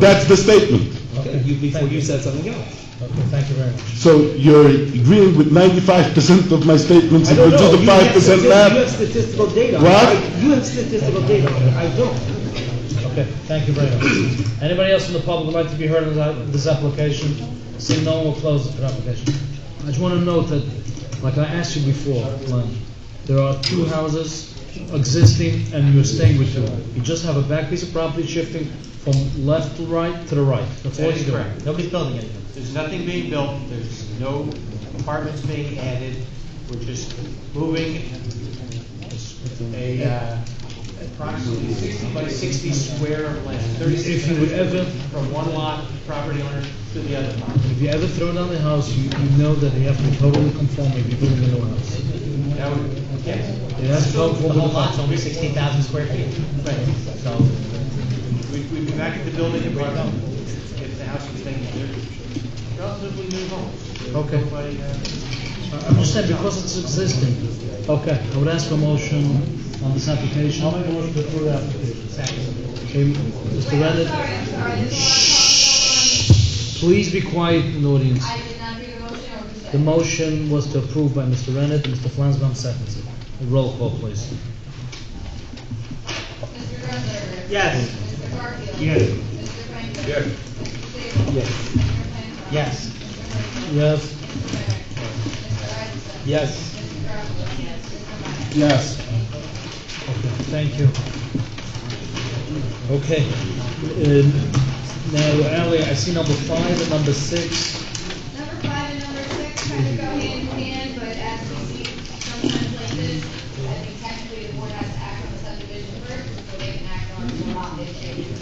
That's the statement. Okay, Okay, you, before thank you said something else. Okay, thank you very much. So you're agreeing with ninety-five percent of my statements, I and don't with know. just the You five have percent stati- You have left? statistical data. on What? it. You have statistical data. on it. I don't. Okay, thank you very much. Anybody else in the public would like to be heard on that- this application? Seeing no one will close the application. I just want to note that, like I asked you before, Glenn, there are two houses existing and you're staying with two. You just have a back piece of property shifting from left to right to the right. That's all That is you're doing. correct. Nobody's building anything. There's nothing being built, there's no apartments being added, we're just moving a, uh, approximately sixty by sixty square of land, thirty-six If you would ever- hundred from one lot property owner to the other property. If you ever throw down the house, you, you know that you have to totally conform if you're building a new house. That would, yes. It has to So, conform with the lot's only sixteen thousand square feet. Right, So, we, we'd be back at the building and brought up, if the house was staying there. Relatively new homes. Okay. Nobody, uh, I- I'm just saying, because it's existing, okay, I would ask for a motion on this application. I'll make a motion to approve the application. Okay, Mr. Wait, I'm Rennett? sorry, I'm sorry, this is Please be quiet in the audience. what I'm talking about. I did not hear the motion The or the second. motion was to approve by Mr. Rennett, Mr. Flansbaum seconds it. Roll call, please. Mr. Grunberger. Yes. Mr. Barfield. Yes. Mr. Franklin. Yes. Mr. Sable. Yes. Mr. Flansbrough. Yes. Mr. Yes? Hertzler. Mr. Renner. Mr. Eisenstadt. Yes. Mr. Garfield. Yes. Yes. Okay, Mr. Meyer. thank you. Okay, um, now, Ali, I see number five and number six. Number five and number six kind of go hand in hand, but as we see sometimes like this, I think technically the board has to act on the subdivision first, so they can act on the lot they change.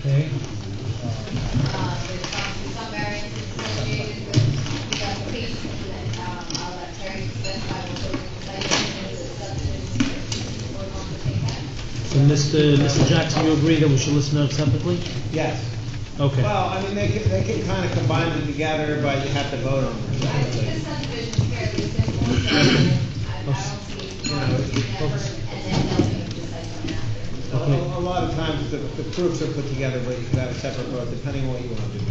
Okay, Uh, there's obviously some variance associated with the application, and, um, I'll let Terry specify what those citations and subdivisions we're going to take that. so Mr. Mr. Jackson, you agree that we should listen to it separately? Yes. Okay, Well, I mean, they can, they can kind of combine them together, but you have to vote on them. I think the subdivision is fairly simple, so I, I don't see why we should never, and then they'll make the site plan after. A, a- a lot of times, the, the proofs are put together, but you could have a separate vote, depending on what you want to do.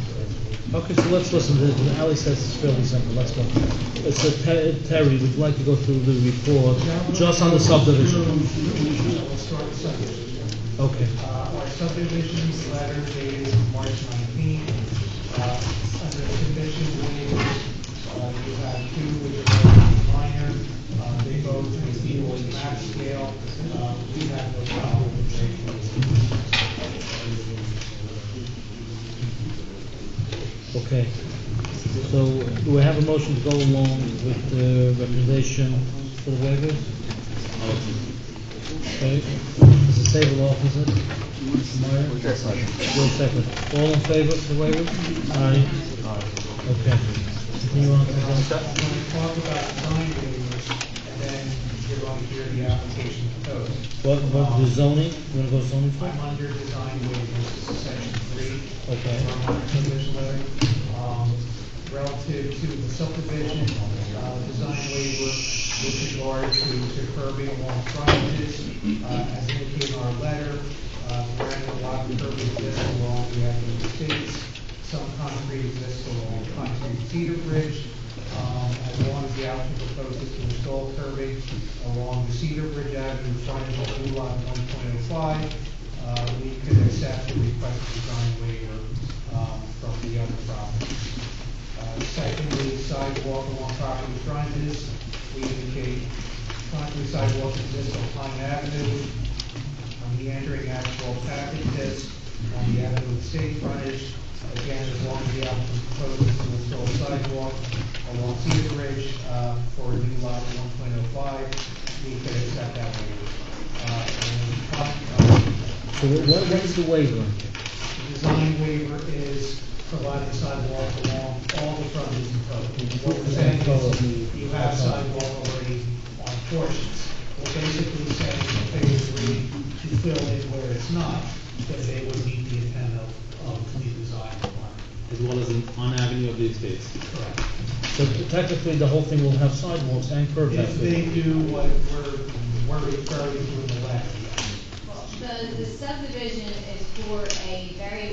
okay, so let's listen to it. Ali says it's fairly simple, let's go. Uh, So Ter- Terry, would you like to go through the report, just on the subdivision? We'll start with subdivision. Okay. Uh, Our subdivision letter dated March 19th. uh, Under condition waivers, uh, you have two which are very minor. Uh, They both exceed the map scale. Uh, We have no problem with waiving. Okay, so do we have a motion to go along with the recommendation for the waivers? Okay, Mr. Sable offers it. Mr. Meyer? Your second. All in favor of the waivers? Aye. Okay. Continue on to the- I'm going to talk about nine waivers, and then you're going to hear the application code. What, what, the zoning, you wanna go zoning I'm first? under design waivers, section three. Okay. From my subdivision letter, um, relative to the subdivision, uh, design waiver with regard to to curbing along frontages, uh, as indicated in our letter, uh, wherein the lot curb exists along the Avenue States, some concrete exists along Country Cedar Bridge, um, as long as the applicant proposes to install curbing along the Cedar Bridge Avenue frontage of Blue Line one point oh five, uh, we could accept the requested design waiver, um, from the other properties. Uh, Secondly, sidewalk along property frontages, we indicate concrete sidewalk exists on Pine Avenue, on the entering asphalt package disc, on the avenue of state frontage, again, as long as the applicant proposes to install sidewalk along Cedar Ridge, uh, for a new lot one point oh five, we could accept that waiver. Uh, and, uh, So what, what what is the waiver? the Design waiver is providing sidewalk along all the frontages in code. What we're saying is, you have sidewalk already on portions. We're basically saying in phase three, to fill in where it's not, that they would meet the intent of, of the design requirement. as well as in- on Avenue of the Estates. Correct. So technically, the whole thing will have sidewalks and curb If they access. do what we're, we're referring to in the letter, yes. The, the subdivision is for a very